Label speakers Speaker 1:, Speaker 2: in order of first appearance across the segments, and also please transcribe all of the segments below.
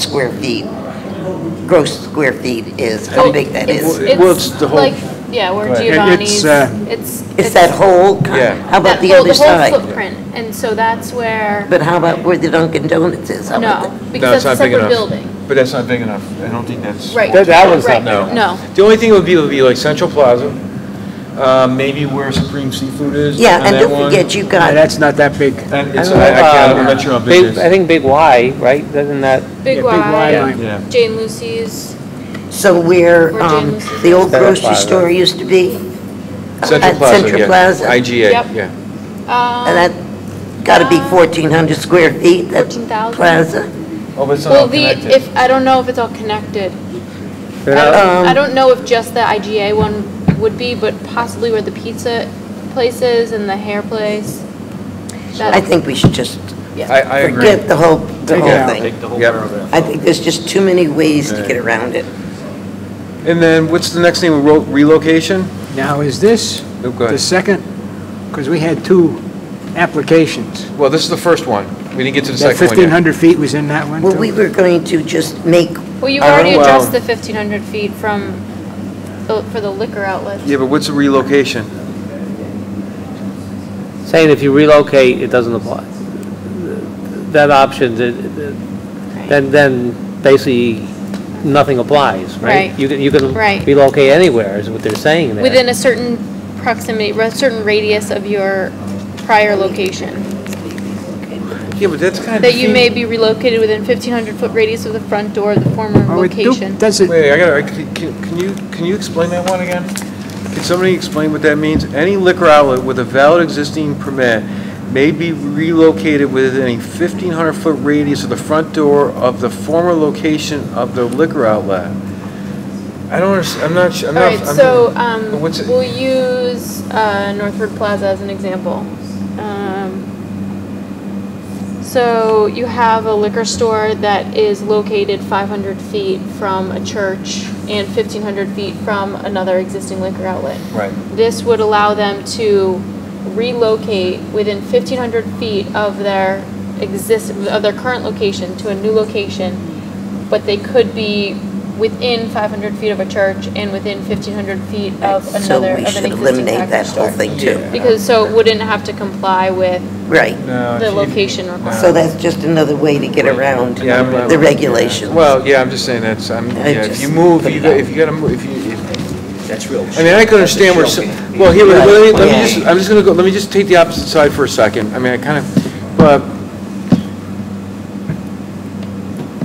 Speaker 1: square feet, gross square feet is, how
Speaker 2: Oh,
Speaker 1: big that
Speaker 2: it's-
Speaker 1: is.
Speaker 3: Well, it's the whole-
Speaker 2: like- Yeah, where
Speaker 3: ahead. It-
Speaker 2: Giovanni's,
Speaker 3: it's, uh,
Speaker 2: it's.
Speaker 1: It's that whole, con-
Speaker 3: Yeah.
Speaker 1: how about
Speaker 2: that
Speaker 1: the
Speaker 2: whole-
Speaker 1: other
Speaker 2: The whole
Speaker 1: side?
Speaker 2: footprint, and so that's where,
Speaker 1: But how about where the Dunkin' Donuts is? How about
Speaker 2: no,
Speaker 1: that?
Speaker 2: because
Speaker 3: not
Speaker 2: that's a
Speaker 3: big
Speaker 2: separate
Speaker 3: enough.
Speaker 2: building.
Speaker 3: But that's not big enough. I don't think that's.
Speaker 2: Right.
Speaker 4: That- that one's not
Speaker 2: right,
Speaker 4: big enough.
Speaker 2: No,
Speaker 3: The only thing would be, would be like Central Plaza, uh, maybe where Supreme Seafood is.
Speaker 1: Yeah, and
Speaker 3: that
Speaker 1: don't
Speaker 3: one.
Speaker 1: forget, you
Speaker 4: Yeah,
Speaker 1: got,
Speaker 4: Ah, that's not that big. Yeah,
Speaker 3: And it's,
Speaker 5: I don't
Speaker 3: I, I can't,
Speaker 5: know,
Speaker 3: I'm
Speaker 5: uh,
Speaker 3: not sure how big
Speaker 5: Big,
Speaker 3: it
Speaker 5: I
Speaker 3: is.
Speaker 5: think Big Y, right? Doesn't that,
Speaker 2: Big
Speaker 4: Y
Speaker 2: Y,
Speaker 4: line.
Speaker 3: Yeah.
Speaker 2: Jane Lucy's,
Speaker 1: so where
Speaker 2: Where
Speaker 1: um,
Speaker 2: James is.
Speaker 1: the old
Speaker 5: Center
Speaker 1: grocery
Speaker 5: Plaza.
Speaker 1: store used to be?
Speaker 3: Central
Speaker 1: At
Speaker 3: Plaza,
Speaker 1: Central
Speaker 3: yeah.
Speaker 1: Plaza.
Speaker 3: IGA,
Speaker 2: Yep.
Speaker 3: yeah.
Speaker 1: And
Speaker 2: um,
Speaker 1: that, gotta
Speaker 2: Uh,
Speaker 1: be 1,400 square feet, that
Speaker 2: 14,000.
Speaker 1: plaza.
Speaker 3: Oh, but it's not
Speaker 2: well,
Speaker 3: all
Speaker 2: the,
Speaker 3: connected.
Speaker 2: if, I don't know if it's all connected. I
Speaker 5: They're
Speaker 1: Um,
Speaker 2: don't, I don't know if just the IGA one would be, but possibly where the pizza place is and the hair place.
Speaker 1: I
Speaker 2: That,
Speaker 1: think we should just
Speaker 3: I, I agree.
Speaker 1: forget the whole, the
Speaker 4: Take it
Speaker 1: whole
Speaker 4: out.
Speaker 1: thing.
Speaker 3: Yep.
Speaker 1: I think there's just too many ways to get around it.
Speaker 3: And then what's the next thing, Relo- relocation?
Speaker 4: Now, is this
Speaker 3: Oh, go
Speaker 4: the
Speaker 3: ahead.
Speaker 4: second? Because we had two applications.
Speaker 3: Well, this is the first one. We didn't get to the
Speaker 4: That
Speaker 3: second one yet.
Speaker 4: 1,500 feet was in that one,
Speaker 1: Well, we
Speaker 4: too?
Speaker 1: were going to just make,
Speaker 2: well, you've
Speaker 3: I don't
Speaker 2: already
Speaker 3: know,
Speaker 2: addressed
Speaker 3: um,
Speaker 2: the fifteen hundred feet from, the- for the liquor outlets.
Speaker 3: Yeah, but what's the relocation?
Speaker 5: saying if you relocate, it doesn't apply. That option, the- the- then, then basically nothing applies, right?
Speaker 2: Right.
Speaker 5: You can, you can
Speaker 2: Right.
Speaker 5: relocate anywhere, is what they're saying there.
Speaker 2: Within a certain proximity, a certain radius of your prior location.
Speaker 3: Yeah, but that's kind of.
Speaker 2: That you may be relocated within 1,500-foot radius of the front door of the former
Speaker 4: Oh, it do-
Speaker 2: location.
Speaker 4: Does it,
Speaker 3: Wait, I gotta, I- can, can you, can you explain that one again? Can somebody explain what that means? Any liquor outlet with a valid existing permit may be relocated within a 1,500-foot radius of the front door of the former location of the liquor outlet. I don't understand, I'm not, su- I'm
Speaker 2: All
Speaker 3: not.
Speaker 2: right,
Speaker 3: I'm-
Speaker 2: so um,
Speaker 3: what's it-
Speaker 2: we'll use uh, Northford Plaza as an example. Um, So you have a liquor store that is located 500 feet from a church and 1,500 feet from another existing liquor outlet.
Speaker 3: Right,
Speaker 2: This would allow them to relocate within 1,500 feet of their exist, of their current location to a new location, but they could be within 500 feet of a church and within 1,500 feet of
Speaker 1: so
Speaker 2: another, of an
Speaker 1: we should
Speaker 2: existing
Speaker 1: eliminate
Speaker 2: package
Speaker 1: that whole
Speaker 2: store.
Speaker 1: thing too.
Speaker 2: Because, so it wouldn't have to comply with
Speaker 1: Right.
Speaker 3: no.
Speaker 2: the
Speaker 3: she-
Speaker 2: location requirement.
Speaker 1: So that's just another way to get around
Speaker 3: Um, Yeah, I'm not-
Speaker 1: the regulations.
Speaker 3: Well, yeah, I'm just saying that's, I'm,
Speaker 1: I
Speaker 3: yeah, if
Speaker 1: just-
Speaker 3: you move, you got- if you gotta, move, if you, if
Speaker 6: That's real.
Speaker 3: I mean, I can understand where, some- well, here, let me, let me just, I'm just gonna go, let me just take the opposite side for a second. I mean, I kind of, but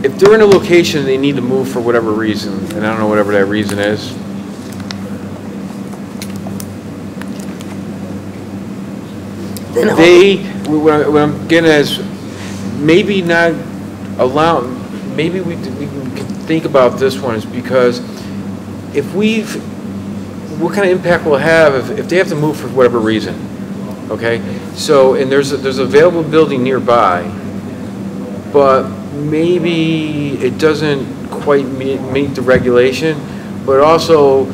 Speaker 3: if they're in a location, they need to move for whatever reason, and I don't know whatever that reason is.
Speaker 1: Then all-
Speaker 3: They, what I- what I'm getting at is, maybe not allow, maybe we, we can think about this one is because if we've, what kind of impact will it have if, if they have to move for whatever reason? Okay, so, and there's, a- there's available building nearby, but maybe it doesn't quite meet, meet the regulation, but also,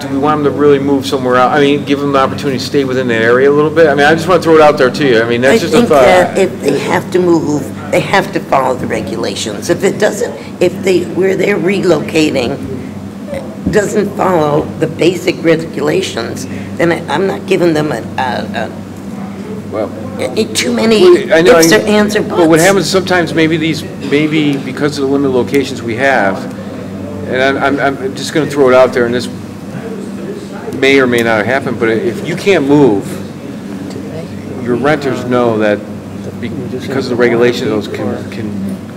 Speaker 3: do we want them to really move somewhere out? I mean, give them the opportunity to stay within that area a little bit? I mean, I just want to throw it out there to you, I mean,
Speaker 1: I
Speaker 3: that's just a
Speaker 1: think
Speaker 3: thought.
Speaker 1: that if they have to move, they have to follow the regulations. If it doesn't, if they, where they're relocating doesn't follow the basic regulations, then I- I'm not giving them a, a,
Speaker 3: Well-
Speaker 1: a- a- too many
Speaker 3: I know, I-
Speaker 1: ifs or ands or buts.
Speaker 3: But what happens sometimes, maybe these, maybe because of the limited locations we have, and I'm- I'm, I'm just gonna throw it out there, and this may or may not happen, but if you can't move, your renters know that be- because of the regulations, those can, can,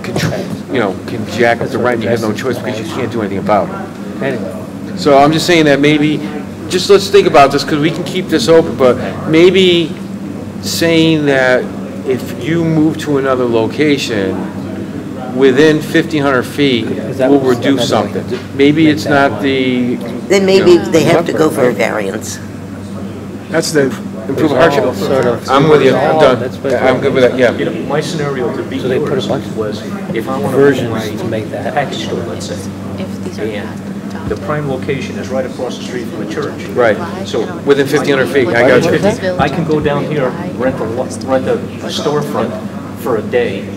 Speaker 3: can tr- you know, can jack up the rent, you have no choice because you can't do anything about it.
Speaker 5: Anyway.
Speaker 3: So I'm just saying that maybe, just let's think about this, because we can keep this open, but maybe saying that if you move to another location, within 1,500 feet,
Speaker 5: Is that
Speaker 3: we'll
Speaker 5: what's-
Speaker 3: reduce
Speaker 5: that's what I-
Speaker 3: something. Maybe it's not the
Speaker 1: Then maybe they have to go for a variance.
Speaker 4: that's the,
Speaker 3: improve hardship.
Speaker 5: It's all sort of-
Speaker 3: I'm with you, I'm done.
Speaker 5: That's what-
Speaker 3: I'm good with that, yeah.
Speaker 6: Uh, You know, my scenario to be
Speaker 5: So they put a
Speaker 6: yours
Speaker 5: bunch of
Speaker 6: was if I want to
Speaker 5: versions to
Speaker 6: move my
Speaker 5: make that
Speaker 6: package store, let's say,
Speaker 2: If these are not
Speaker 6: and
Speaker 2: adopted.
Speaker 6: the prime location is right across the street from a church.
Speaker 3: Right.
Speaker 6: So
Speaker 3: Within 1,500 feet, I got you.
Speaker 6: I can go down here, rent a, lo- rent a storefront for a day,